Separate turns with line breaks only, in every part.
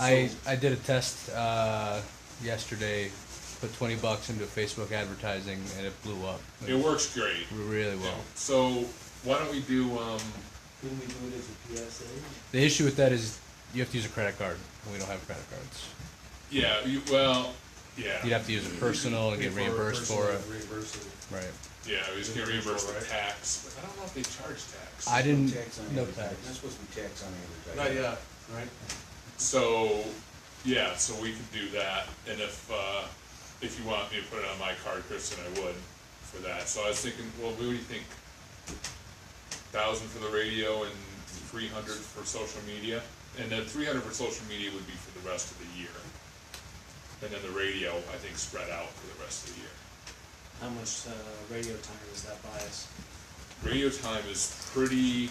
I I did a test uh, yesterday, put twenty bucks into Facebook advertising, and it blew up.
It works great.
really well.
So why don't we do, um,
Couldn't we do it as a PSA?
The issue with that is you have to use a credit card, and we don't have credit cards.
yeah, you, well, yeah.
You'd have to use a personal and get
Pay
reimbursed for it.
personal, Reimburse it.
Right.
Yeah, we just get reimbursed with tax, but I don't know if they charge tax.
I didn't.
Tax on
No
advertising.
tax.
Not supposed to be tax on
Not
advertising.
yet, right?
So, yeah, so we could do that, and if, uh, if you want me to put it on my card, Kristen, I would for that, so I was thinking, well, what do you think? Thousand for the radio and three hundred for social media, and then three hundred for social media would be for the rest of the year. And then the radio, I think, spread out for the rest of the year.
How much uh, radio time does that buy us?
Radio time is pretty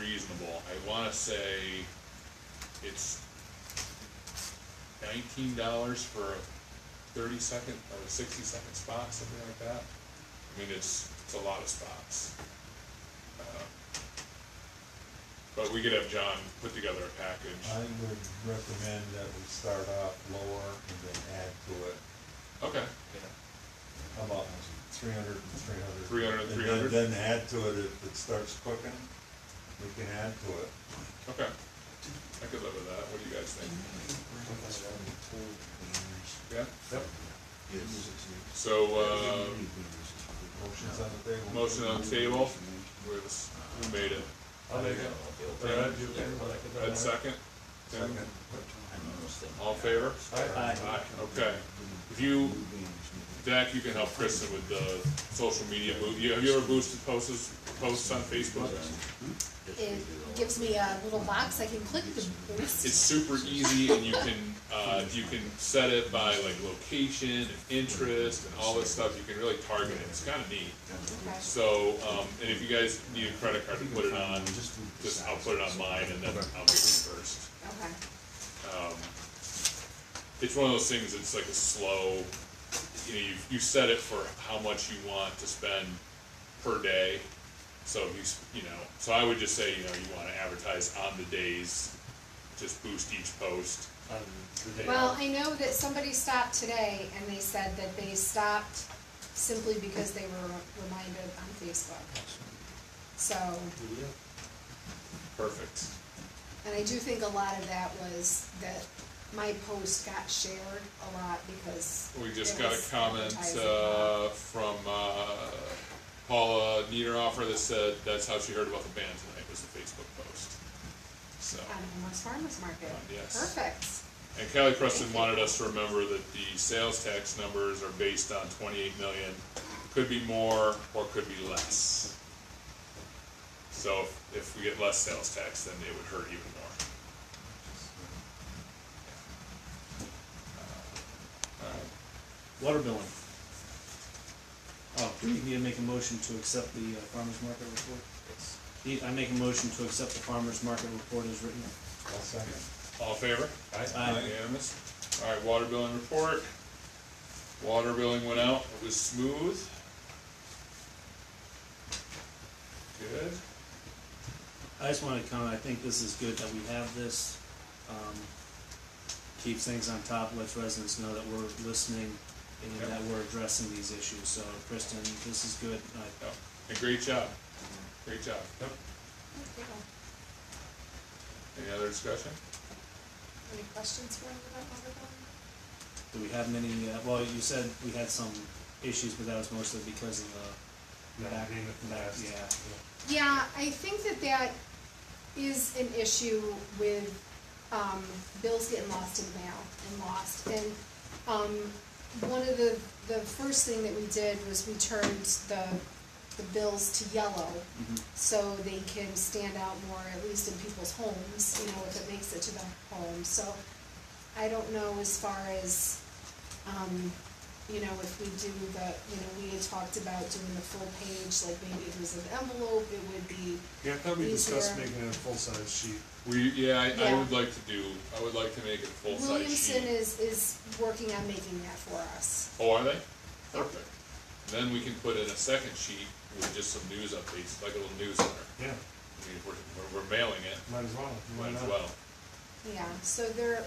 reasonable. I wanna say it's nineteen dollars for a thirty second or a sixty second spot, something like that. I mean, it's, it's a lot of spots. Uh, But we could have John put together a
I
package.
would recommend that we start off lower and then add to it.
Okay,
How about three hundred and three hundred?
300 and 300?
Then add to it if it starts cooking, we can add to it.
okay. I could live with that. What do you guys think? Yeah?
Yep.
Yes.
So, uh,
Motion's on the table.
motion on the table, where's, who made it?
I'll make it.
Brad,
you okay with that?
Ed second? Tim?
Second.
All in favor?
Aye.
Aye, okay. If you, Dak, you can help Kristen with the social media move. You, have you ever boosted posts, posts on Facebook?
It gives me a little box I can click to boost.
It's super easy and you can, uh, you can set it by like location and interest and all this stuff. You can really target it. It's kinda neat.
Okay.
So, um, and if you guys need a credit card to put it on, just, I'll put it on mine and then I'll be reimbursed.
Okay.
um, it's one of those things that's like a slow, you know, you, you set it for how much you want to spend per day. So if you, s- you know, so I would just say, you know, you wanna advertise on the days, just boost each post.
Um,
and-
Well, I know that somebody stopped today and they said that they stopped simply because they were reminded on Facebook. So,
Perfect.
and I do think a lot of that was that my post got shared a lot because.
We just
it
got
was
a comment,
advertising.
uh, from, uh, Paula Niederhofer that said that's how she heard about the band tonight, was the Facebook post. So.
On Homer's Farmers Market.
Yes.
Perfect.
And Kelly Preston wanted us to remember that the sales tax numbers are based on twenty-eight million, could be more or could be less. So if- if we get less sales tax, then it would hurt even more. Uh,
Water billing. Oh, do you need to make a motion to accept the uh, farmer's market report? Yes. I make a motion to accept the farmer's market report as written.
I'll second.
All in favor?
Aye.
Unanimous? All right, water billing report. Water billing went out, it was smooth. Good.
I just wanted to comment, I think this is good that we have this. Um, Keeps things on top, lets residents know that we're listening
Yep.
and that we're addressing these issues. So Kristen, this is good. I-
Yep, and great job, great job. Yep.
Thank you.
Any other discussion?
Any questions for anyone about water billing?
Do we have many, uh, well, you said we had some issues, but that was mostly because of the.
That
back-
agreement from
back-
last-
Yeah.
Yeah, I think that that is an issue with, um, bills getting lost in the mail and lost. And, um, one of the, the first thing that we did was we turned the, the bills to yellow
Mhm.
so they can stand out more, at least in people's homes, you know, if it makes it to the home. So I don't know as far as, um, you know, if we do the, you know, we had talked about doing the full page, like maybe it was an envelope, it would be,
Yeah, I thought we discussed
Easier.
making it a full-size sheet.
We, yeah, I, I would
Yeah.
like to do, I would like to make it a full-size
Williamson
sheet.
is, is working on making that for us.
Oh, are they? Perfect. Then we can put in a second sheet with just some news updates, like a little newsletter.
Yeah,
I mean, if we're, we're- we're mailing it,
might as well.
might as well.
Yeah, so there,